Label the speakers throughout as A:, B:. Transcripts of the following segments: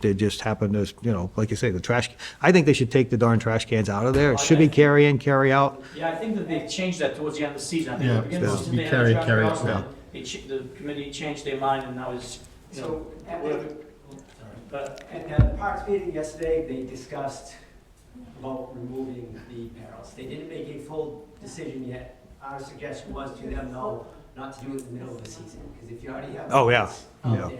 A: They just happen to, you know, like you say, the trash, I think they should take the darn trash cans out of there. It should be carry in, carry out.
B: Yeah, I think that they changed that towards the end of the season. I think at
C: Yeah,
B: the beginning of
C: yeah.
B: the season,
C: Be
B: they
C: carry,
B: had a
C: carry,
B: traffic
C: yeah.
B: law, they ch- the committee changed their mind, and now it's, you know,
D: So at the,
B: but,
D: at the parks meeting yesterday, they discussed about removing the barrels. They didn't make a full decision yet. Our suggestion was to them, no, not to do it in the middle of the season, because if you already have.
A: Oh, yeah,
D: lights Out
A: yeah.
D: there.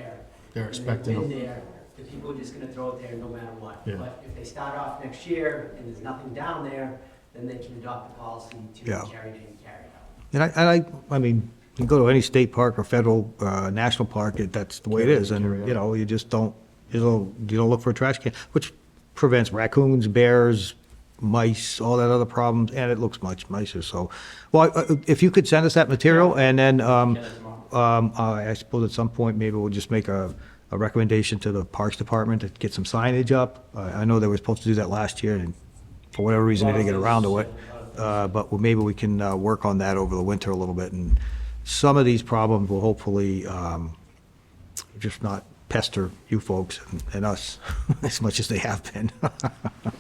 C: They're
D: and they've
C: expecting
D: been
C: them.
D: there, the people are just gonna throw it there no matter what.
C: Yeah.
D: But if they start off next year and there's nothing down there, then they can adopt the policy to
A: Yeah.
D: carry it in, carry it out.
A: And I, I like, I mean, you go to any state park or federal, uh, national park, it- that's the way it is. And, you know, you just don't, you don't, you don't look for a trash can, which prevents raccoons, bears, mice, all that other problems, and it looks much nicer, so. Well, uh, if you could send us that material, and then, um,
B: Yeah, tomorrow.
A: um, I I suppose at some point, maybe we'll just make a, a recommendation to the Parks Department to get some signage up. I, I know they were supposed to do that last year, and for whatever reason, they didn't get around to it. Uh, but well, maybe we can, uh, work on that over the winter a little bit, and some of these problems will hopefully, um, just not pester you folks and- and us as much as they have been.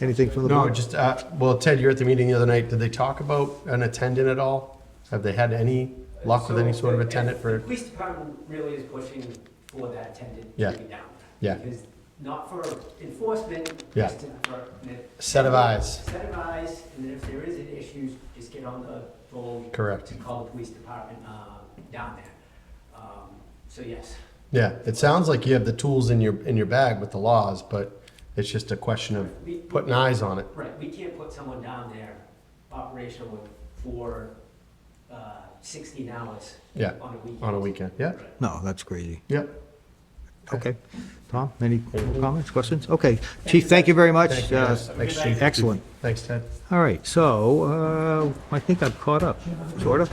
A: Anything from the
C: No,
A: board?
C: just, uh, well, Ted, you were at the meeting the other night. Did they talk about an attendant at all? Have they had any luck with any sort of attendant
D: The
C: for,
D: police department really is pushing for that attendant
C: Yeah.
D: to be down.
C: Yeah.
D: Because not for enforcement,
C: Yeah.
D: just to- for.
C: Set of eyes.
D: Set of eyes, and then if there is an issue, just get on the phone.
C: Correct.
D: And call the police department, uh, down there. Um, So yes,
C: yeah, it sounds like you have the tools in your, in your bag with the laws, but it's just a question
D: We-
C: of putting eyes on it.
D: right, we can't put someone down there operational for, uh, sixteen hours.
C: Yeah,
D: On a weekend.
C: on a weekend. Yeah,
A: No, that's crazy.
C: yep.
A: Okay. Tom, any comments, questions? Okay. Chief, thank you very much.
C: Thank you, guys.
A: Uh,
C: Thanks, Chief.
A: Excellent.
C: Thanks, Ted.
A: All right, so uh, I think I've caught up, sort of.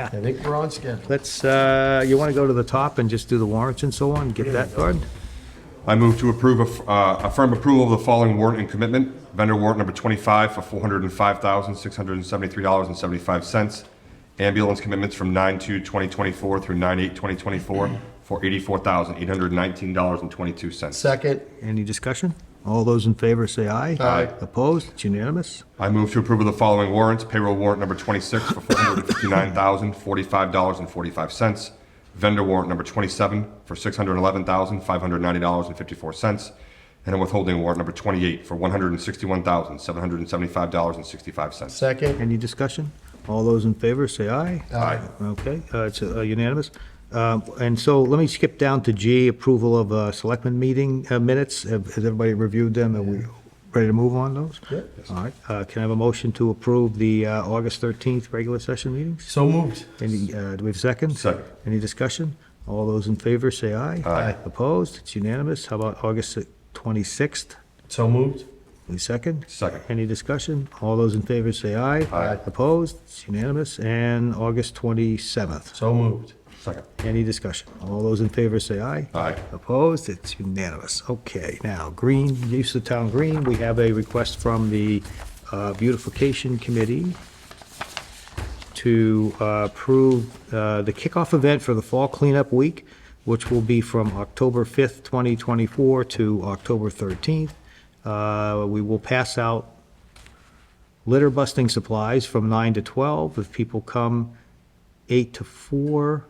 C: I think we're on schedule.
A: Let's, uh, you want to go to the top and just do the warrants and so on, get that done?
E: I move to approve, a- uh, affirm approval of the following warrant and commitment. Vendor warrant number 25 for $405,673.75. Ambulance commitments from 9/2/2024 through 9/8/2024 for $84,819.22.
C: Second,
A: Any discussion? All those in favor say aye.
C: Aye.
A: Opposed? It's unanimous.
E: I move to approve of the following warrants. Payroll warrant number 26 for $459,045.45. Vendor warrant number 27 for $611,590.54. And a withholding warrant number 28 for $161,775.65.
C: second,
A: Any discussion? All those in favor say aye.
C: Aye.
A: Okay, uh, it's uh, unanimous. Um, And so let me skip down to G, approval of uh, selectmen meeting uh, minutes. Have- Has everybody reviewed them? Are we ready to move on those?
C: Yeah.
A: All right, uh, can I have a motion to approve the uh, August 13th regular session meetings?
C: so moved.
A: Any, uh, do we have a second?
E: Second.
A: Any discussion? All those in favor say aye.
C: Aye.
A: Opposed? It's unanimous. How about August 26th?
C: So moved.
A: Any second?
E: Second.
A: Any discussion? All those in favor say aye.
C: Aye.
A: Opposed? It's unanimous. And August 27th.
C: So moved.
E: Second.
A: Any discussion? All those in favor say aye.
E: Aye.
A: Opposed? It's unanimous. Okay, now, green, use of town green, we have a request from the uh, beautification committee to uh, approve uh, the kickoff event for the fall cleanup week, which will be from October 5th, 2024 to October 13th. Uh, We will pass out litter busting supplies from 9 to 12. If people come 8 to 4,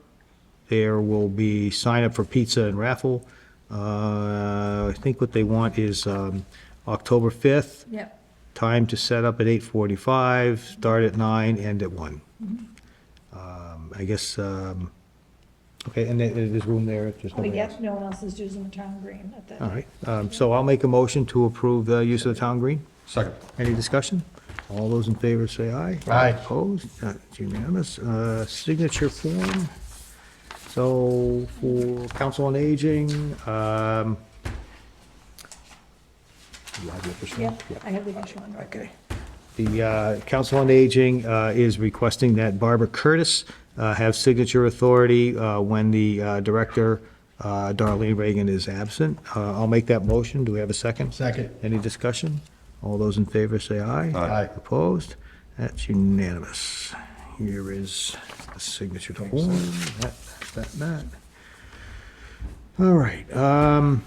A: there will be sign up for pizza and raffle. Uh, I think what they want is um, October 5th,
F: Yep.
A: time to set up at 8:45, start at 9, end at 1. Um, I guess, um, okay, and there- there's room there, just
F: We
A: nobody else.
F: get, no one else is using the town green at that.
A: All right, um, so I'll make a motion to approve the use of the town green.
E: Second.
A: Any discussion? All those in favor say aye.
C: Aye.
A: Opposed? Uh, It's unanimous. Uh, Signature form. So for Council on Aging, um, you have the official one?
F: Yep, I have the initial one right there.
A: Okay. The uh, Council on Aging uh, is requesting that Barbara Curtis uh, have signature authority uh, when the uh, Director, uh, Darlene Reagan, is absent. Uh, I'll make that motion. Do we have a second?
C: Second.
A: Any discussion? All those in favor say aye.
C: Aye.
A: Opposed? That's unanimous. Here is the signature form. That, that, that. All right, um,